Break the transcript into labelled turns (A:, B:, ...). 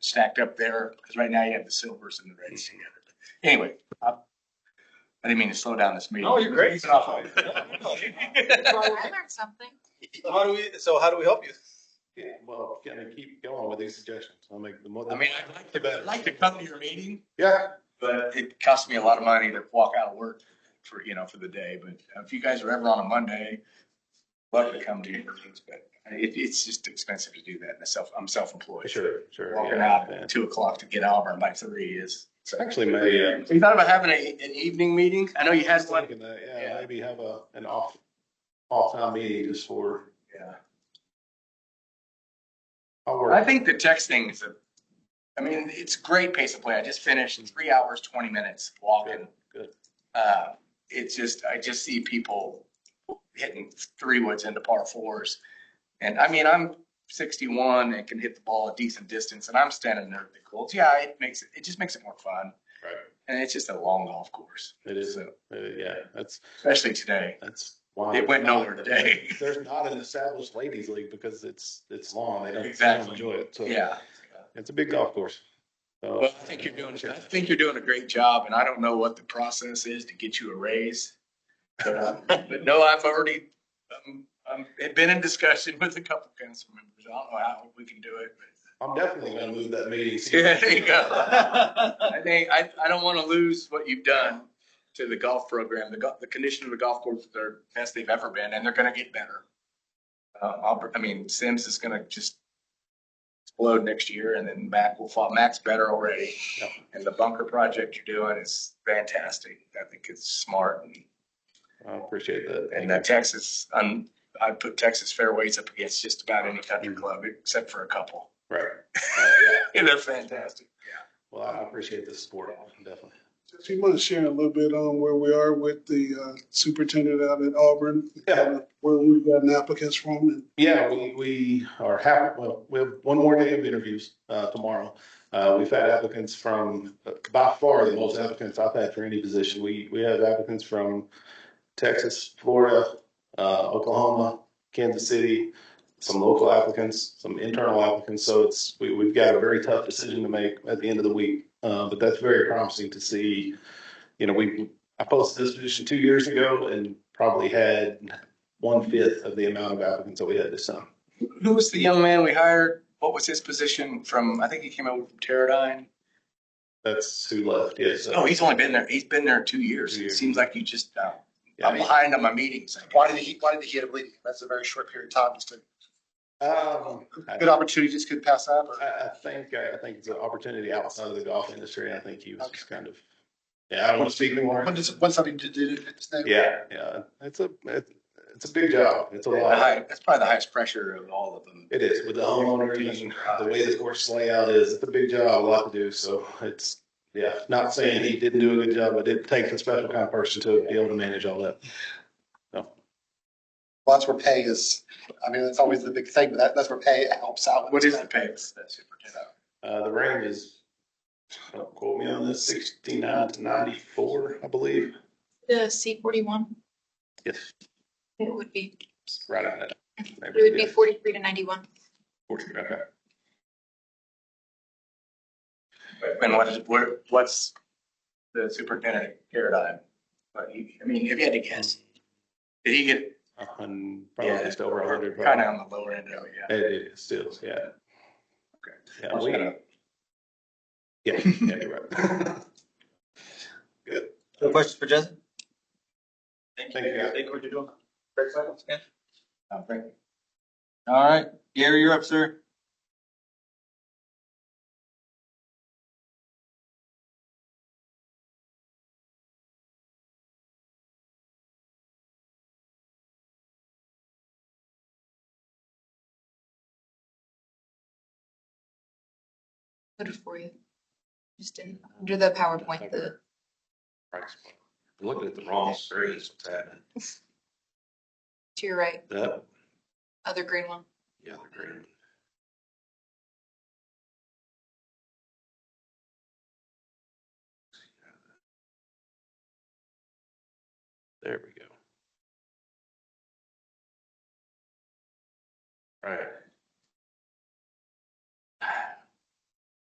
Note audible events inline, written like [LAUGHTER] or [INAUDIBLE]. A: stacked up there, because right now you have the silvers and the reds
B: Mm-hmm.
A: together. Anyway, uh, I didn't mean to slow down this meeting.
C: [LAUGHS] No, you're great.
A: It's off on-
D: I learned something.
C: How do we, so how do we help you?
B: Well, can I keep going with these suggestions? I'll make the more.
A: I mean, I'd like to, I'd like to come to your meeting,
B: Yeah,
A: but it costs me a lot of money to walk out of work for, you know, for the day. But if you guys are ever on a Monday, love to come to your meetings, but it, it's just expensive to do that. Myself, I'm self-employed.
B: sure, sure.
A: Walking
B: yeah,
A: out
B: yeah.
A: at two o'clock to get Auburn by three is.
B: It's Actually, maybe. I was
A: You thought about having a, an evening meeting? I know you had one.
B: thinking that,
A: Yeah.
B: Yeah, maybe have a, an off, off-time meeting just for.
A: Yeah.
B: I'll
A: I
B: work.
A: think the texting is a, I mean, it's a great pace of play. I just finished three hours, twenty minutes walking.
B: Mm-hmm. Good, good.
A: Uh, it's just, I just see people hitting three woods into par fours. And I mean, I'm sixty-one and can hit the ball a decent distance and I'm standing there at the courts. Yeah, it makes it, it just makes it more fun.
B: Right.
A: And it's just a long golf course.
B: It is,
A: So,
B: uh, yeah, that's,
A: Especially today.
B: that's. why
A: It went
B: there's not-
A: nowhere today.
B: [LAUGHS] There's not an established ladies league because it's, it's long. They don't- they don't
A: Exactly.
B: enjoy it. So
A: Yeah.
B: it's a big golf course. So-
A: Well, I think you're doing, I think you're doing a great job, and I don't know what the process is to get you a raise. But uh, but no, I've already, um, um, had been in discussion with a couple council members. I don't know how we can do it.
B: I'm definitely gonna move that meeting.
A: but- Yeah, there you go. I think, I, I don't want to lose what you've done to the golf program. The golf, the condition of the golf courses are best they've ever been, and they're gonna get better. Uh, I'll, I mean, Sims is gonna just explode next year, and then Mac will fall, Mac's better already.
B: Yep.
A: And the bunker project you're doing is fantastic. I think it's smart, and,
B: I appreciate that.
A: and uh, Texas, um, I put Texas fairways up against just about any country club, except for a couple.
B: Right. Uh, Mm. yeah.
A: [LAUGHS] And they're fantastic.
B: Well, I appreciate the support, definitely.
E: If you want to share a little bit on where we are with the uh, superintendent out at Auburn,
B: Yeah.
E: where we've gotten applicants from and
B: Yeah, we, we are happy, well, we have one more day of interviews, uh, tomorrow. Uh, we've had applicants from, uh, by far the most applicants I've had for any position. We, we have applicants from Texas, Florida, uh, Oklahoma, Kansas City, some local applicants, some internal applicants. So it's, we, we've got a very tough decision to make at the end of the week. Uh, but that's very promising to see. You know, we, I posted this position two years ago and probably had one fifth of the amount of applicants that we had this time.
A: Who was the young man we hired? What was his position from, I think he came over from Teradyne?
B: That's who left. Yes.
A: Oh, he's only been there, he's been there two years.
B: Two
A: It
B: years.
A: seems like you just, uh,
B: Yeah, I
A: I'm
B: mean,
A: behind on my meetings.
F: Why did he, why did he end up leaving? That's a very short period of time. Just a
B: um, I,
F: good opportunity, just could pass up. or-
B: I- I think uh, I think it's an opportunity outside of the golf industry. I think he was just kind of. Yeah, I don't want to speak anymore.
F: When does, when something to do, it's never.
B: Yeah, yeah, it's a it's it's a big job. It's a
A: The
B: lot.
A: high- That's probably the highest pressure of all of them. uh,
B: It is with the homeowners and the way the course layout is. It's a big job, a lot to do. So it's yeah. Not saying he didn't do a good job, but it takes a special kind of person to be able to manage all that.
F: Well, That's where pay is, I mean, that's always the big thing, but that, that's where pay helps out.
A: What is the pay?
B: Uh, the range is, don't quote me on this, sixty-nine to ninety-four, I believe.
D: The C forty-one,
B: Yes,
D: it would be,
B: right on that.
D: it would be forty-three to ninety-one.
B: Forty, okay.
A: And what is, what, what's the superintendent paradigm? But he, I mean, if you had to guess, did he get?
B: A hun, probably just over a hundred.
A: Kind of on the lower end of it, yeah.
B: It is still, yeah.
A: Okay.
B: Yeah, we, yeah, [LAUGHS] yeah, you're right. Good.
C: No questions for Jensen?
B: Thank you.
C: Thank you for what you're doing.
F: Great question.
A: Oh, thank you.
C: All right, Gary, you're up, sir.
D: Put it for you. Just in, under the PowerPoint, the,
B: We're Looking at the wrong screen, is what's happening.
D: to your right,
B: That,
D: other green one.
B: yeah, the green. There we go.